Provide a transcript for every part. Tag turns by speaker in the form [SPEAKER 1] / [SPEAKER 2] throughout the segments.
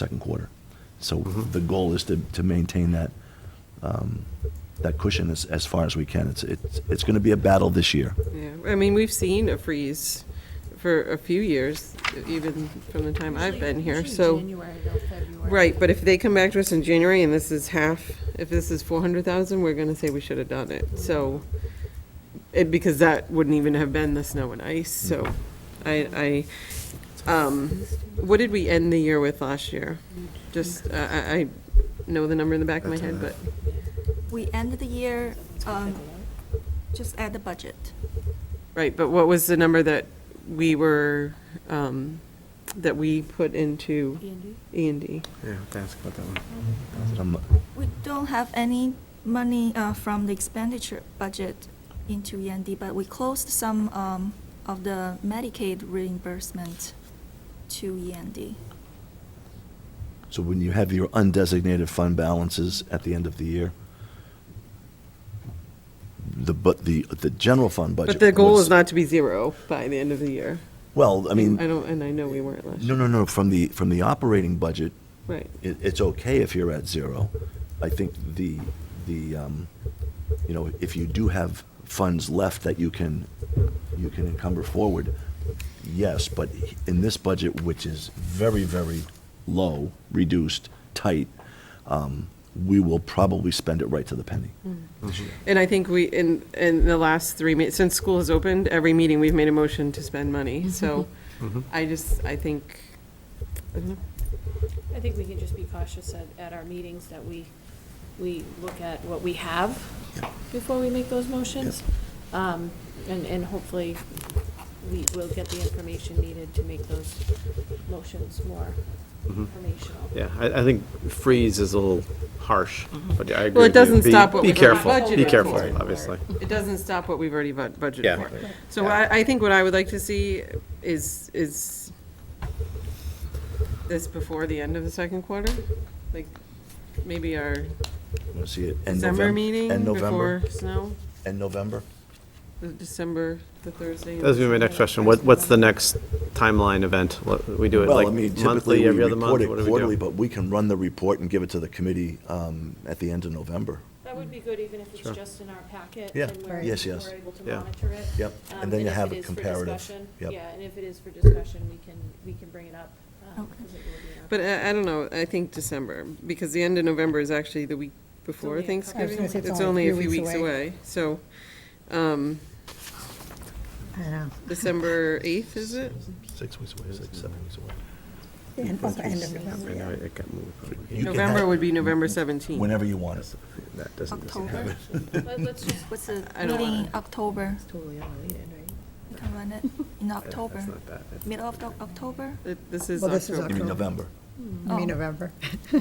[SPEAKER 1] second quarter. So the goal is to, to maintain that, um, that cushion as, as far as we can. It's, it's, it's going to be a battle this year.
[SPEAKER 2] Yeah, I mean, we've seen a freeze for a few years, even from the time I've been here, so. Right, but if they come back to us in January and this is half, if this is four hundred thousand, we're gonna say we should have done it, so. It, because that wouldn't even have been the snow and ice, so I, I, um, what did we end the year with last year? Just, I, I, I know the number in the back of my head, but,
[SPEAKER 3] We ended the year, um, just at the budget.
[SPEAKER 2] right, but what was the number that we were, um, that we put into? E and D.
[SPEAKER 4] Yeah, I have to ask about that one.
[SPEAKER 1] Um,
[SPEAKER 3] We don't have any money uh, from the expenditure budget into END, but we closed some um, of the Medicaid reimbursement to E END.
[SPEAKER 1] So when you have your undesignated fund balances at the end of the year, the, but the, the general fund budget.
[SPEAKER 2] But the goal
[SPEAKER 1] was-
[SPEAKER 2] is not to be zero by the end of the year.
[SPEAKER 1] Well, I mean,
[SPEAKER 2] I don't, and I know we weren't last
[SPEAKER 1] no,
[SPEAKER 2] year.
[SPEAKER 1] no, no, from the, from the operating budget,
[SPEAKER 2] Right,
[SPEAKER 1] it, it's okay if you're at zero. I think the, the, um, you know, if you do have funds left that you can, you can encumber forward, yes, but in this budget, which is very, very low, reduced, tight, um, we will probably spend it right to the penny.
[SPEAKER 2] Hmm. and I think we, in, in the last three, me- since school has opened, every meeting, we've made a motion to spend money, so I just, I think, I don't know.
[SPEAKER 5] I think we can just be cautious at, at our meetings that we, we look at what we have before we make those motions. Um, and, and hopefully, we will get the information needed to make those motions more informational.
[SPEAKER 4] Yeah, I, I think freeze is a little harsh, but
[SPEAKER 2] Well,
[SPEAKER 4] I agree.
[SPEAKER 2] it
[SPEAKER 4] with you.
[SPEAKER 2] doesn't
[SPEAKER 4] Be-
[SPEAKER 2] stop what
[SPEAKER 4] Be
[SPEAKER 2] was on the
[SPEAKER 4] careful,
[SPEAKER 2] budget
[SPEAKER 4] be
[SPEAKER 2] report.
[SPEAKER 4] careful, obviously.
[SPEAKER 2] it doesn't stop what we've already bud- budgeted
[SPEAKER 4] Yeah.
[SPEAKER 2] for. So I, I think what I would like to see is, is this before the end of the second quarter? Like, maybe our
[SPEAKER 1] Want to see it? end
[SPEAKER 2] December
[SPEAKER 1] Novem-
[SPEAKER 2] meeting
[SPEAKER 1] End November?
[SPEAKER 2] before snow?
[SPEAKER 1] End November?
[SPEAKER 2] The December, the Thursday.
[SPEAKER 4] That was gonna be my next question. What, what's the next timeline event? What, we do it
[SPEAKER 1] Well,
[SPEAKER 4] like
[SPEAKER 1] I mean, typically
[SPEAKER 4] monthly,
[SPEAKER 1] we
[SPEAKER 4] every other
[SPEAKER 1] report
[SPEAKER 4] month?
[SPEAKER 1] it
[SPEAKER 4] What do
[SPEAKER 1] quarterly,
[SPEAKER 4] we do?
[SPEAKER 1] but we can run the report and give it to the committee um, at the end of November.
[SPEAKER 5] That would be good, even if it's
[SPEAKER 4] Sure.
[SPEAKER 5] just in our packet.
[SPEAKER 1] Yeah.
[SPEAKER 5] and we're-
[SPEAKER 1] Right. Yes, yes.
[SPEAKER 5] We're able to
[SPEAKER 4] Yeah.
[SPEAKER 5] monitor it.
[SPEAKER 1] Yep.
[SPEAKER 5] Um,
[SPEAKER 1] And then you
[SPEAKER 5] if
[SPEAKER 1] have
[SPEAKER 5] it
[SPEAKER 1] a
[SPEAKER 5] is for
[SPEAKER 1] comparative.
[SPEAKER 5] discussion-
[SPEAKER 1] Yep.
[SPEAKER 5] Yeah, and if it is for discussion, we can, we can bring it up. um,
[SPEAKER 3] Okay.
[SPEAKER 5] 'cause it will be in our-
[SPEAKER 6] uh,
[SPEAKER 2] But I, I don't know, I think December, because the end of November is actually the week before
[SPEAKER 5] only a couple- I was gonna
[SPEAKER 2] Thanksgiving.
[SPEAKER 7] say it's only a few weeks away.
[SPEAKER 2] So, um,
[SPEAKER 7] I don't know.
[SPEAKER 2] December eighth, is it?
[SPEAKER 1] Six weeks away, six, seven weeks away.
[SPEAKER 7] And also end of
[SPEAKER 4] I
[SPEAKER 7] November,
[SPEAKER 4] know
[SPEAKER 7] yeah.
[SPEAKER 4] it got moved, but we-
[SPEAKER 1] You can
[SPEAKER 2] November
[SPEAKER 1] have-
[SPEAKER 2] would be November seventeenth.
[SPEAKER 1] Whenever you want it.
[SPEAKER 4] That doesn't doesn't
[SPEAKER 3] October.
[SPEAKER 4] happen.
[SPEAKER 5] Let- Let's just
[SPEAKER 3] What's the
[SPEAKER 2] I don't
[SPEAKER 3] meeting
[SPEAKER 2] wanna-
[SPEAKER 3] in October?
[SPEAKER 7] Totally unrelated, right?
[SPEAKER 3] We can run it in
[SPEAKER 4] That-
[SPEAKER 3] October,
[SPEAKER 4] That's not bad. That's-
[SPEAKER 3] middle of Oc- October?
[SPEAKER 2] This is
[SPEAKER 7] Well, this is
[SPEAKER 1] You
[SPEAKER 2] October.
[SPEAKER 1] mean November?
[SPEAKER 7] I mean,
[SPEAKER 3] Oh.
[SPEAKER 7] November.
[SPEAKER 3] Yeah,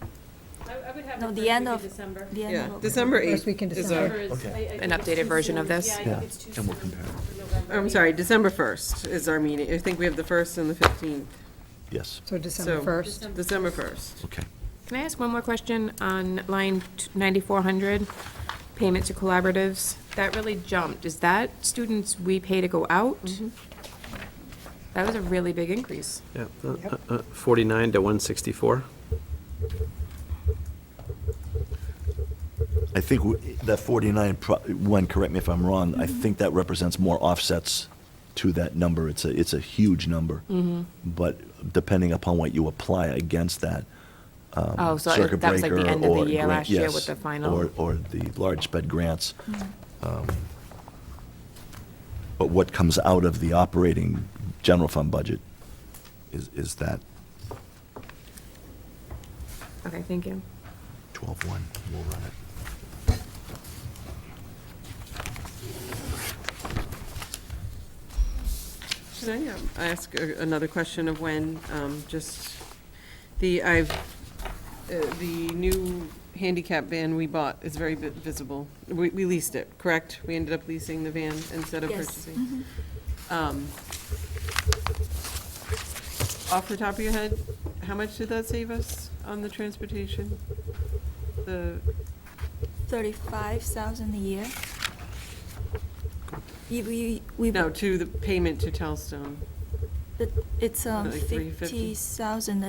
[SPEAKER 5] I, I would have
[SPEAKER 3] No,
[SPEAKER 5] it
[SPEAKER 3] the
[SPEAKER 5] first
[SPEAKER 3] end
[SPEAKER 5] week
[SPEAKER 3] of-
[SPEAKER 5] December.
[SPEAKER 3] the end
[SPEAKER 2] Yeah,
[SPEAKER 3] of October.
[SPEAKER 2] December
[SPEAKER 7] First
[SPEAKER 2] eighth
[SPEAKER 7] week in
[SPEAKER 2] is
[SPEAKER 7] December.
[SPEAKER 2] our,
[SPEAKER 5] Or is-
[SPEAKER 1] Okay.
[SPEAKER 5] I- I think
[SPEAKER 6] An
[SPEAKER 5] it's too
[SPEAKER 6] updated version of
[SPEAKER 5] soon.
[SPEAKER 6] this?
[SPEAKER 5] Yeah, I
[SPEAKER 1] Yeah,
[SPEAKER 5] think it's too
[SPEAKER 1] and we'll
[SPEAKER 5] soon
[SPEAKER 1] compare.
[SPEAKER 5] for November.
[SPEAKER 2] I'm sorry, December first is our meeting. I think we have the first and the fifteenth,
[SPEAKER 1] Yes,
[SPEAKER 7] So December
[SPEAKER 2] So-
[SPEAKER 7] 1st.
[SPEAKER 2] December first.
[SPEAKER 1] okay.
[SPEAKER 6] Can I ask one more question on line t- 9400, payment to collaboratives? That really jumped. Is that students we pay to go out? That was a really big increase.
[SPEAKER 4] Yeah, uh, uh, uh, 49 to 164.
[SPEAKER 1] I think w- that 49, pro- one, correct me if I'm wrong, I think that represents more offsets to that number. It's a, it's a huge number.
[SPEAKER 6] Mm-hmm.
[SPEAKER 1] But depending upon what you apply against that, um,
[SPEAKER 6] Oh, so
[SPEAKER 1] circuit
[SPEAKER 6] that was like
[SPEAKER 1] breaker
[SPEAKER 6] the end of
[SPEAKER 1] or
[SPEAKER 6] the year
[SPEAKER 1] grant-
[SPEAKER 6] last year
[SPEAKER 1] yes,
[SPEAKER 6] with the final. Mm-hmm.
[SPEAKER 1] Or, or the large sped grants. Um, But what comes out of the operating general fund budget is, is that
[SPEAKER 6] Okay, thank you.
[SPEAKER 1] twelve-one, we'll run it.
[SPEAKER 2] Should I um, ask a- another question of when, um, just, the, I've, uh, the new handicap van we bought is very vi- visible. We we leased it, correct? We ended up leasing the van instead of
[SPEAKER 3] Yes.
[SPEAKER 2] purchasing. Um, Off the top of your head, how much did that save us on the transportation? The,
[SPEAKER 3] Thirty-five thousand a year. If we, we.
[SPEAKER 2] no, to the payment to Telstone.
[SPEAKER 3] It- It's um,
[SPEAKER 2] Like 350.
[SPEAKER 3] 50,000 a